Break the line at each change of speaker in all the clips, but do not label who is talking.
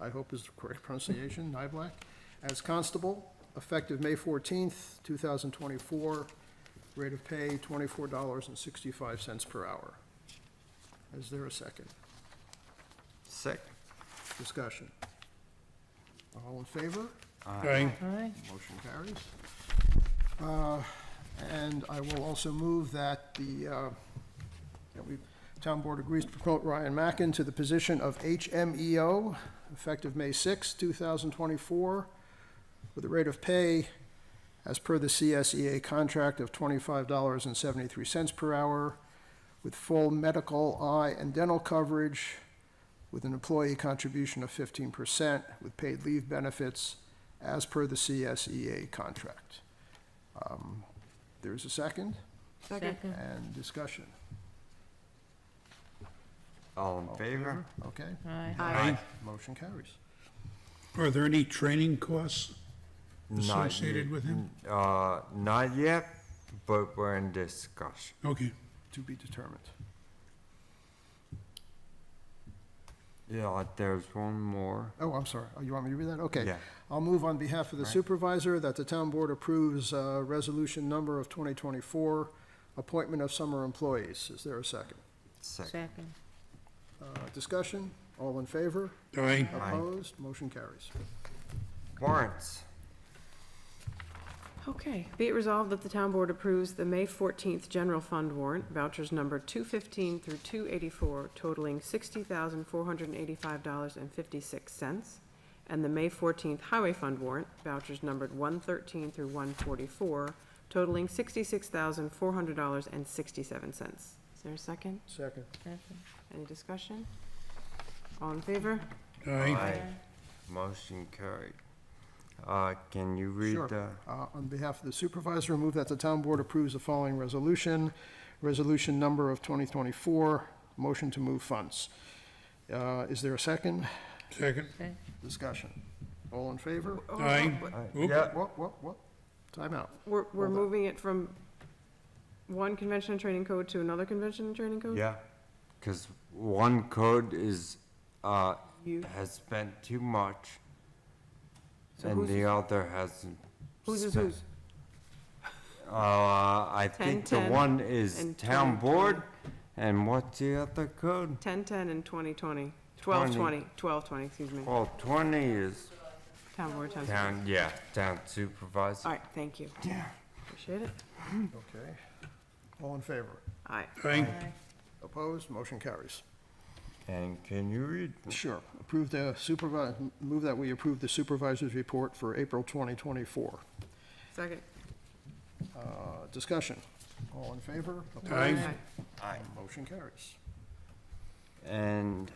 I hope is the correct pronunciation, Nyblack, as constable, effective May fourteenth, two thousand twenty-four, rate of pay twenty-four dollars and sixty-five cents per hour. Is there a second?
Second.
Discussion. All in favor?
Aye.
Aye.
Motion carries. Uh, And I will also move that the, uh, that we, Town Board agrees to promote Ryan Mackin to the position of HMEO effective May 6, 2024, with a rate of pay as per the CSEA contract of $25.73 per hour, with full medical, eye, and dental coverage, with an employee contribution of 15%, with paid leave benefits, as per the CSEA contract. Um, There is a second
Second.
and discussion,
All in favor?
okay?
Aye.
Aye.
Motion carries.
Are there any training costs
Not
associated
ye-
with him?
Uh, not yet, but we're in discussion.
Okay,
To be determined.
Yeah, Uh, there's one more.
Oh, I'm sorry, Oh, you want me to read that? Okay.
Yeah.
I'll move on behalf of the
Right.
supervisor that the town board approves uh, resolution number of 2024, appointment of summer employees. Is there a second?
Second.
Second.
Uh, Discussion, all in favor?
aye,
Opposed? Motion carries.
Warrants.
Okay, be it resolved that the town board approves the May fourteenth general fund warrant vouchers number two fifteen through two eighty-four totaling sixty thousand four hundred and eighty-five dollars and fifty-six cents, and the May fourteenth highway fund warrant vouchers numbered one thirteen through one forty-four totaling sixty-six thousand four hundred dollars and sixty-seven cents. Is there a second?
Second.
Second.
Any discussion? All in favor?
aye,
Motion carried. Uh, can you read
Sure.
the?
Uh, On behalf of the supervisor, move that the town board approves the following resolution. Resolution number of 2024, motion to move funds. Uh, Is there a second?
second,
Discussion. All in favor?
Oh,
aye.
what-
Uh,
Oop.
Yeah,
What, what, what? Timeout.
We're, we're
Hold on.
moving it from one convention and training code to another convention and training code?
yeah, cause one code is, uh,
You-
has spent too much.
So
And
whose
the
is-
other hasn't.
Whose is
spent.
whose?
Uh, I think the
10,
one is
and
town
20.
board, and what's the other code?
Ten-ten and twenty-twenty, twelve-twenty, twelve-twenty, excuse me,
Well, twenty is
town board, town supervisor.
town, yeah, town supervisor.
All right, thank you. Yeah. Appreciate it.
Okay. All in favor?
All right,
Aye,
Opposed? Motion carries.
And can you read?
Sure. Approve the supervisor, move that we approve the supervisor's report for April 2024.
second.
Uh, Discussion. All in favor?
Aye.
All right,
Aye.
Motion carries.
And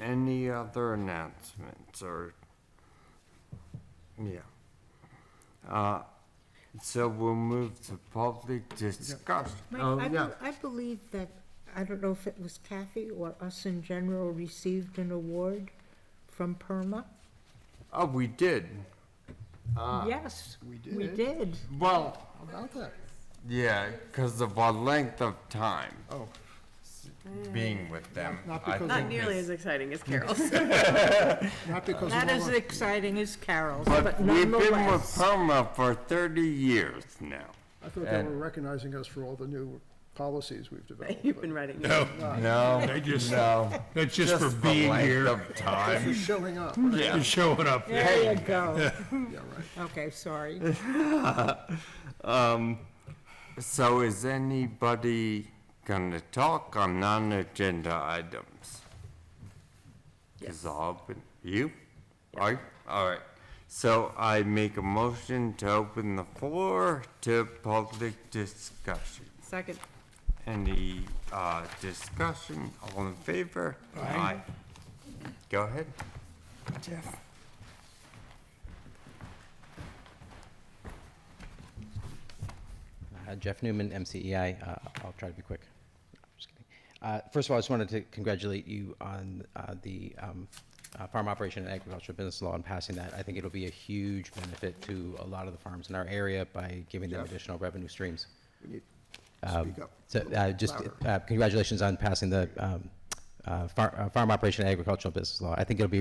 any other announcements or, yeah. Uh, so we'll move to public discussion. Oh,
Mike, I
yeah.
bel- I believe that, I don't know if it was Kathy or us in general received an award from PERMA.
Oh, we did.
Yes.
we
We
did.
did.
Well,
How about that?
yeah, because of our length of time
Oh,
being with them.
Not
I
because of-
think
Not nearly
it's-
as exciting as Carol's.
not because
Not as
of
exciting as Carol's,
But
but
we've been with
nonetheless.
Perma for thirty years now.
I thought they were
and-
recognizing us for all the new policies we've developed.
You've
but-
been writing.
no,
No,
They Oh, just-
no.
that's just for
the
being
length
here,
of
Just for
time.
showing up.
Um,
and showing up.
There you go.
Yeah, right.
Okay, sorry.
So is anybody gonna talk on non-agenda items? Is all, but you? All right, all right. So I make a motion to open the floor to public discussion.
Second,
Any, uh, discussion, all in favor? Aye. Go ahead. Jeff.
Uh, Jeff Newman, MCEI. Uh, I'll try to be quick. Just kidding. Uh, First of all, I just wanted to congratulate you on uh, the um, uh, Farm Operation and Agricultural Business Law and passing that. I think it'll be a huge benefit to a lot of the farms in our area by giving them additional revenue streams.
We need to Speak up.
So uh, just
Louder.
uh, congratulations on passing the um, uh, Far- uh, Farm Operation and Agricultural Business Law. I think it'll be